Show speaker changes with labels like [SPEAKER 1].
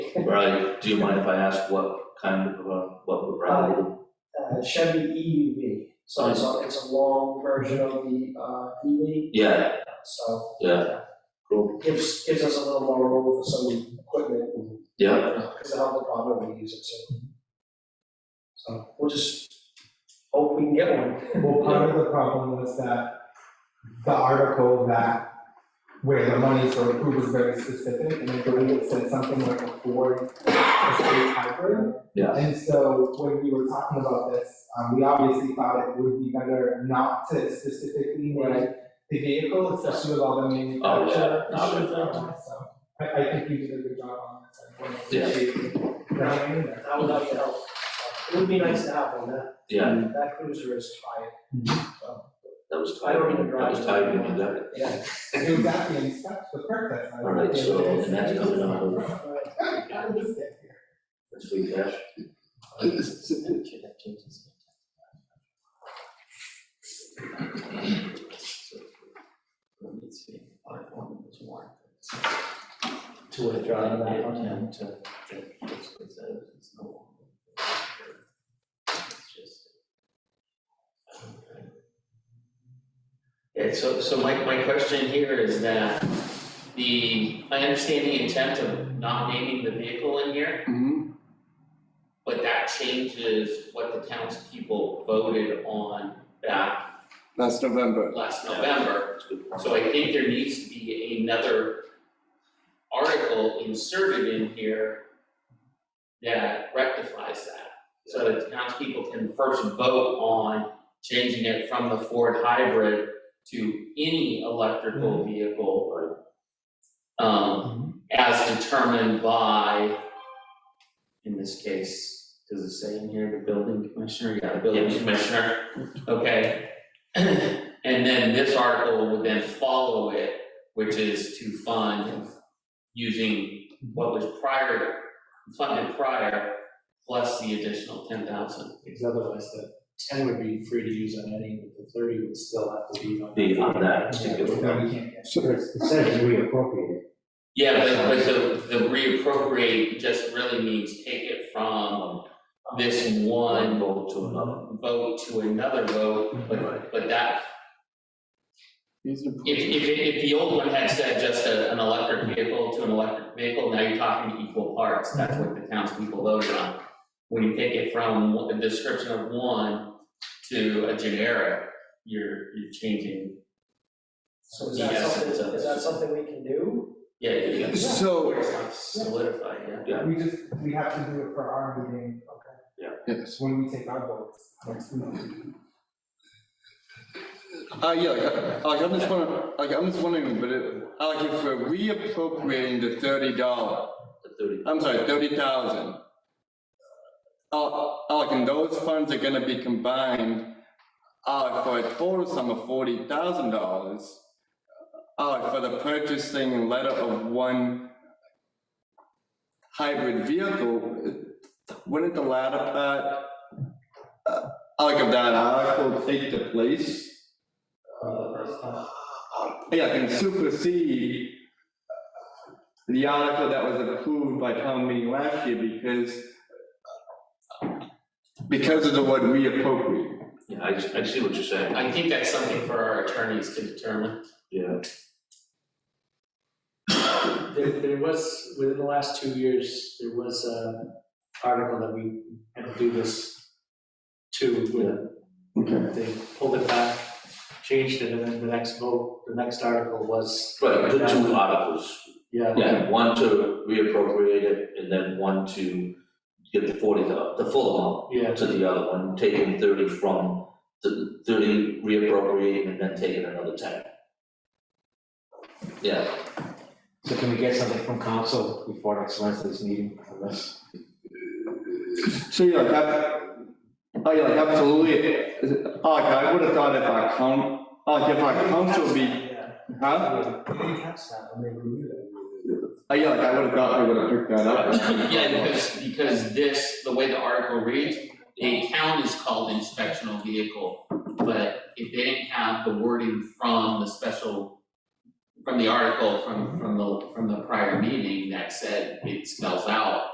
[SPEAKER 1] Right, do you mind if I ask what kind of, uh, what variety?
[SPEAKER 2] uh, Chevy EUV. So it's a, it's a long version of the, uh, EV,
[SPEAKER 1] Yeah,
[SPEAKER 2] so.
[SPEAKER 1] Yeah. Cool.
[SPEAKER 2] Gives, gives us a little more room for some equipment and.
[SPEAKER 1] yeah,
[SPEAKER 2] Because the health department will use it too. So we'll just hope we can get one.
[SPEAKER 3] Well, part of the problem was that the article that, where the money for the food was very specific, and I believe it said something like a Ford Escape Hybrid.
[SPEAKER 1] Yeah.
[SPEAKER 3] And so when we were talking about this, um, we obviously thought it would be better not to specifically name the vehicle, especially with all the manufacturer
[SPEAKER 1] Oh, yeah,
[SPEAKER 3] issues
[SPEAKER 1] obviously.
[SPEAKER 3] that one, so. I, I think you did a good job on this, I want to
[SPEAKER 1] Yeah.
[SPEAKER 3] appreciate you trying that.
[SPEAKER 2] I would love to help. It would be nice to have one, that,
[SPEAKER 1] yeah,
[SPEAKER 2] that cruiser is tired.
[SPEAKER 1] that was
[SPEAKER 2] I don't even
[SPEAKER 1] tied, that was
[SPEAKER 2] drive.
[SPEAKER 1] tied into that.
[SPEAKER 2] Yeah.
[SPEAKER 3] Exactly, and that's the purpose. I
[SPEAKER 1] All right,
[SPEAKER 3] think.
[SPEAKER 1] so the next coming on,
[SPEAKER 3] How did this get here?
[SPEAKER 1] that's free cash.
[SPEAKER 4] To withdraw that one? Yeah, so, so my, my question here is that the, I understand the intent of not naming the vehicle in here.
[SPEAKER 5] Mm-hmm.
[SPEAKER 4] But that changes what the townspeople voted on back
[SPEAKER 5] Last November.
[SPEAKER 4] last November. So I think there needs to be another article inserted in here that rectifies that. So that the townspeople can first vote on changing it from the Ford hybrid to any electrical vehicle. Um, as determined by, in this case, does it say in here, the building commissioner, yeah, the building
[SPEAKER 1] Yes.
[SPEAKER 4] commissioner, okay? And then this article would then follow it, which is to fund using what was prior, funded prior, plus the additional ten thousand.
[SPEAKER 6] Because otherwise the ten would be free to use on any, but the thirty would still have to be on.
[SPEAKER 1] Be on that particular one.
[SPEAKER 3] No, we can't get.
[SPEAKER 5] So,
[SPEAKER 4] Yeah, but but the the reappropriate just really means take it from this
[SPEAKER 1] One
[SPEAKER 4] one
[SPEAKER 1] vote to another, uh,
[SPEAKER 4] vote to another vote,
[SPEAKER 1] Right.
[SPEAKER 4] but but that,
[SPEAKER 5] these are-
[SPEAKER 4] if if if the old one had said just a an electric vehicle to an electric vehicle, now you're talking equal parts, that's what the townspeople voted on. When you take it from the description of one to a generic, you're you're changing,
[SPEAKER 2] So is that
[SPEAKER 4] Yes, it's
[SPEAKER 2] something,
[SPEAKER 4] a-
[SPEAKER 2] is that something we can do?
[SPEAKER 4] yeah, yeah.
[SPEAKER 5] So-
[SPEAKER 4] It's not solidified, yeah.
[SPEAKER 1] Yeah.
[SPEAKER 3] We just, we have to do it for our meeting. Okay.
[SPEAKER 5] Yes.
[SPEAKER 3] When we take our votes next month.
[SPEAKER 5] Uh, yeah, like, like, I'm just wondering, like, I'm just wondering, but it, uh, like, if we're reappropriating the thirty dollar,
[SPEAKER 1] the thirty,
[SPEAKER 5] I'm sorry, thirty thousand. Uh, uh, like, and those funds are gonna be combined, uh, for a total sum of forty thousand dollars. Uh, for the purchasing letter of one hybrid vehicle, wouldn't the latter part, uh, like, of that article take the place?
[SPEAKER 6] Uh, the first time.
[SPEAKER 5] Yeah, can supersede the article that was approved by town meeting last year because because of the word reappropriate.
[SPEAKER 1] yeah, I, I see what you're saying,
[SPEAKER 4] I think that's something for our attorneys to determine.
[SPEAKER 1] yeah,
[SPEAKER 6] There, there was, within the last two years, there was an article that we had to do this to, where they pulled it back, changed it, and then the next vote, the next article was,
[SPEAKER 1] right, the two articles,
[SPEAKER 6] yeah.
[SPEAKER 1] yeah, one to reappropriate it, and then one to get the forty, thou- the full amount.
[SPEAKER 6] Yeah,
[SPEAKER 1] to the other one, taking thirty from the thirty, reappropriating and then taking another ten. Yeah,
[SPEAKER 7] So can we get something from council before next Wednesday's meeting on this?
[SPEAKER 5] So yeah, like that, oh yeah, like absolutely. Is it- oh, Like I would have thought if our coun, oh, like if our council be,
[SPEAKER 6] Yeah.
[SPEAKER 5] huh?
[SPEAKER 1] Uh,
[SPEAKER 6] We didn't catch that when they reviewed it.
[SPEAKER 5] Oh yeah, like I would have thought they would have picked that up.
[SPEAKER 4] Yeah, because, because this, the way the article reads, the account is called inspectional vehicle. But if they didn't have the wording from the special from the article from, from the, from the prior meeting that said it spells out